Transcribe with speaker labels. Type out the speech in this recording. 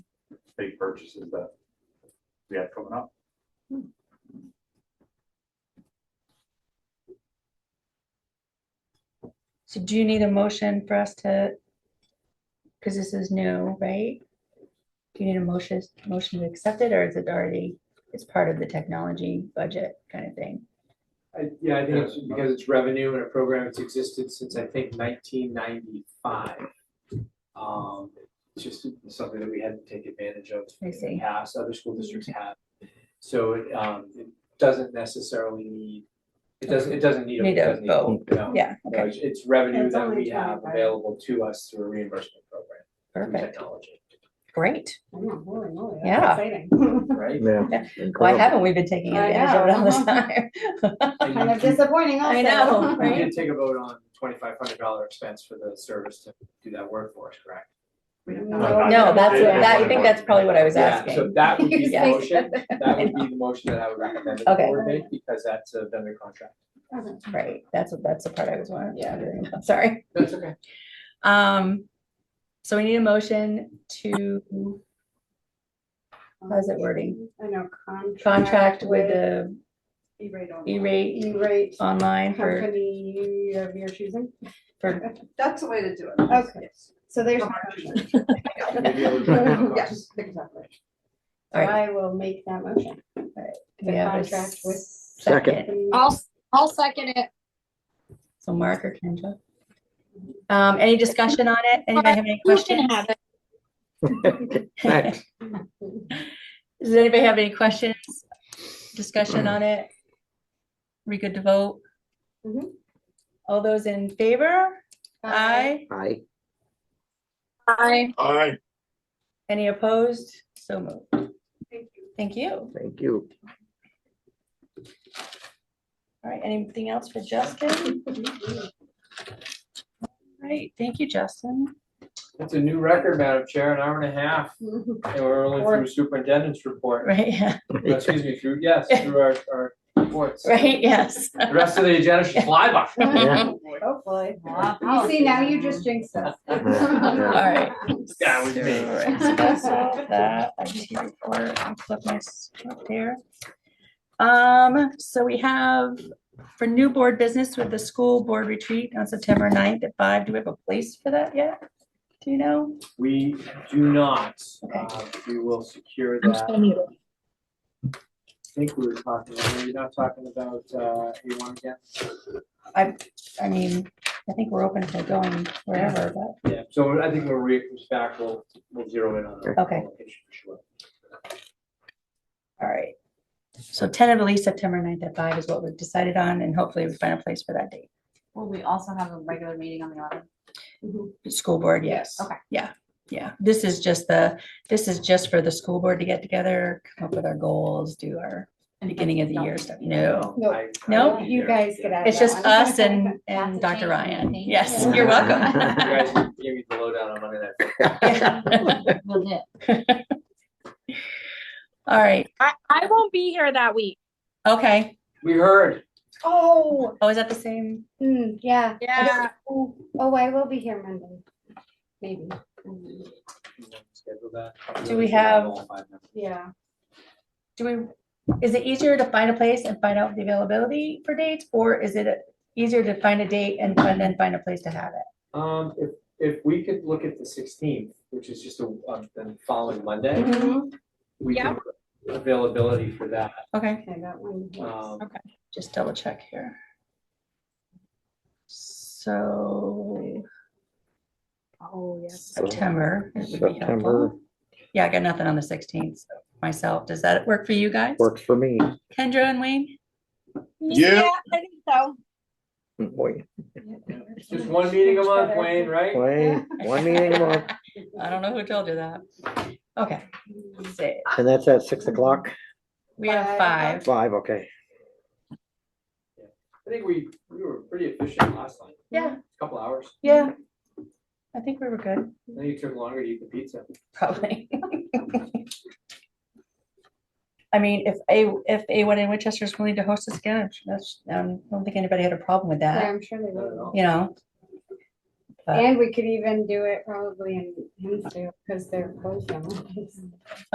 Speaker 1: big purchases that we have coming up.
Speaker 2: So do you need a motion for us to? Because this is new, right? Do you need a motion, motion to accept it, or is it already, it's part of the technology budget kind of thing?
Speaker 3: I, yeah, I think it's because it's revenue and a program that's existed since I think nineteen ninety-five. Um, it's just something that we had to take advantage of
Speaker 2: I
Speaker 3: in
Speaker 2: see.
Speaker 3: the past, other school districts have. So it, um, it doesn't necessarily need, it doesn't, it doesn't need.
Speaker 2: Need a
Speaker 3: doesn't
Speaker 2: vote.
Speaker 3: no.
Speaker 2: Yeah,
Speaker 3: No,
Speaker 2: okay,
Speaker 3: It's it's revenue
Speaker 4: It's
Speaker 3: that
Speaker 4: only
Speaker 3: we have
Speaker 4: 25.
Speaker 3: available to us through a reimbursement program, through
Speaker 2: perfect,
Speaker 3: technology,
Speaker 2: great.
Speaker 4: Yeah, holy moly, that's
Speaker 2: Yeah.
Speaker 4: exciting.
Speaker 3: right?
Speaker 5: Yeah.
Speaker 2: Yeah. Why
Speaker 5: incredible.
Speaker 2: haven't we been taking
Speaker 4: I
Speaker 2: advantage of it all this
Speaker 4: know.
Speaker 2: time?
Speaker 3: And you
Speaker 4: Kind of
Speaker 3: keep-
Speaker 4: disappointing also.
Speaker 2: I know,
Speaker 3: We
Speaker 2: right?
Speaker 3: did take a vote on twenty-five hundred dollar expense for the service to do that work for us, correct?
Speaker 4: No,
Speaker 2: No, that's,
Speaker 4: Yeah.
Speaker 2: that, I think that's probably what I was
Speaker 3: Yeah, so
Speaker 2: asking.
Speaker 3: that would be the
Speaker 2: Yes.
Speaker 3: motion, that would be the motion that I would recommend that
Speaker 2: Okay.
Speaker 3: the board make, because that's a vendor contract.
Speaker 2: Right, that's, that's the part I was wondering.
Speaker 3: Yeah.
Speaker 2: wondering about, Sorry.
Speaker 3: That's okay.
Speaker 2: Um, so we need a motion to How's it wording?
Speaker 4: I know, contract.
Speaker 2: contract with the
Speaker 4: E-rate.
Speaker 2: E-rate
Speaker 4: E-rate
Speaker 2: online for,
Speaker 4: company of your choosing.
Speaker 2: for,
Speaker 6: That's the way to do it.
Speaker 4: Okay, so there's.
Speaker 3: Maybe I would recommend
Speaker 6: Yes,
Speaker 3: those.
Speaker 6: exactly.
Speaker 2: all right.
Speaker 4: I will make that motion.
Speaker 2: Do we have a
Speaker 4: contract with-
Speaker 2: Second,
Speaker 7: I'll, I'll second it.
Speaker 2: so Mark or Kendra. Um, any discussion on it? Anybody have any
Speaker 7: You can
Speaker 2: questions?
Speaker 7: have it.
Speaker 5: Thanks.
Speaker 2: Does anybody have any questions? Discussion on it? We good to vote?
Speaker 6: Mm-hmm.
Speaker 4: Mhm.
Speaker 2: All those in favor? Aye.
Speaker 5: Hi.
Speaker 7: Aye.
Speaker 1: Aye.
Speaker 2: Any opposed? So moved.
Speaker 6: Thank you.
Speaker 2: Thank you.
Speaker 5: Thank you.
Speaker 2: All right, anything else for Justin? All right, thank you, Justin.
Speaker 3: That's a new record, Madam Chair, an hour and a half, and we're only
Speaker 4: Or-
Speaker 3: through superintendent's report, Uh,
Speaker 2: Right, yeah,
Speaker 3: excuse me, through, yes, through our, our reports.
Speaker 2: right, yes.
Speaker 3: The rest of the agenda should fly by.
Speaker 5: Yeah.
Speaker 4: Hopefully. You see, now you just jinxed us.
Speaker 2: All right.
Speaker 3: Yeah, we did.
Speaker 2: All right, so that's all of that. I just need to record and flip my script there. Um, so we have for new board business with the school board retreat on September 9th at five. Do we have a place for that yet? Do you know?
Speaker 3: We do not,
Speaker 2: Okay.
Speaker 3: uh, we will secure
Speaker 7: I'm
Speaker 3: that.
Speaker 7: still muted.
Speaker 3: I think we were talking, are you not talking about uh A one again?
Speaker 2: I mean, I think we're open to going wherever, but,
Speaker 3: Yeah, so I think when Maria comes back, we'll we'll zero in on that.
Speaker 2: Okay.
Speaker 3: location for sure.
Speaker 2: all right. So tentatively September 9th at five is what we've decided on and hopefully we find a place for that date.
Speaker 8: Will we also have a regular meeting on the eleventh?
Speaker 2: Mm-hmm. School board, yes.
Speaker 8: Okay.
Speaker 2: Yeah, yeah. This is just the, this is just for the school board to get together, come up with our goals, do our beginning of the year stuff. No.
Speaker 4: No.
Speaker 3: Um, I-
Speaker 2: No,
Speaker 3: I-
Speaker 4: You guys get out of
Speaker 2: It's
Speaker 4: that
Speaker 2: just
Speaker 4: one.
Speaker 2: us and, and
Speaker 8: Lots of
Speaker 2: Dr.
Speaker 8: change,
Speaker 2: Ryan.
Speaker 8: thank
Speaker 2: Yes,
Speaker 5: you.
Speaker 2: you're
Speaker 3: You
Speaker 2: welcome.
Speaker 3: guys gave me the lowdown on Monday night.
Speaker 8: Legit.
Speaker 2: All right,
Speaker 7: I, I won't be here that week.
Speaker 2: okay.
Speaker 3: We heard,
Speaker 4: Oh,
Speaker 2: Oh, is that the same?
Speaker 4: mm, yeah. I don't-
Speaker 7: Yeah.
Speaker 4: Oh, oh, I will be here Monday, maybe.
Speaker 3: schedule that.
Speaker 2: Do we have-
Speaker 3: All five members.
Speaker 4: Yeah.
Speaker 2: Do we, is it easier to find a place and find out the availability for dates? Or is it easier to find a date and find- then find a place to have it?
Speaker 3: Um, if if we could look at the sixteenth, which is just a, um, the following Monday, we
Speaker 7: Yeah.
Speaker 3: can availability for that.
Speaker 2: Okay,
Speaker 4: Okay, that one. works.
Speaker 3: Um,
Speaker 2: just double check here. So
Speaker 8: Oh, yes.
Speaker 2: September. it would be helpful.
Speaker 5: September
Speaker 2: Yeah, I got nothing on the sixteenth myself. Does that work for you guys?
Speaker 5: works for me.
Speaker 2: Kendra and Wayne?
Speaker 7: Yeah, I think so.
Speaker 5: Boy,
Speaker 3: Just one meeting a month, Wayne, right?
Speaker 5: Wayne, one meeting a month,
Speaker 2: I don't know who told you that. Okay. Say-
Speaker 5: and that's at six o'clock,
Speaker 2: We have
Speaker 4: Five.
Speaker 2: five.
Speaker 5: five, okay.
Speaker 3: I think we we were pretty efficient last time,
Speaker 2: Yeah,
Speaker 3: couple hours.
Speaker 2: yeah. I think we were good,
Speaker 3: I think it took longer to eat the pizza.
Speaker 2: probably. I mean, if A, if A1 in Winchester is willing to host us again, that's, I don't think anybody had a problem with
Speaker 4: Yeah,
Speaker 2: that,
Speaker 4: I'm sure they
Speaker 3: I don't
Speaker 4: will.
Speaker 3: know.
Speaker 2: you know? but.
Speaker 4: And we could even do it probably in Hinsdale, because they're closed on Mondays.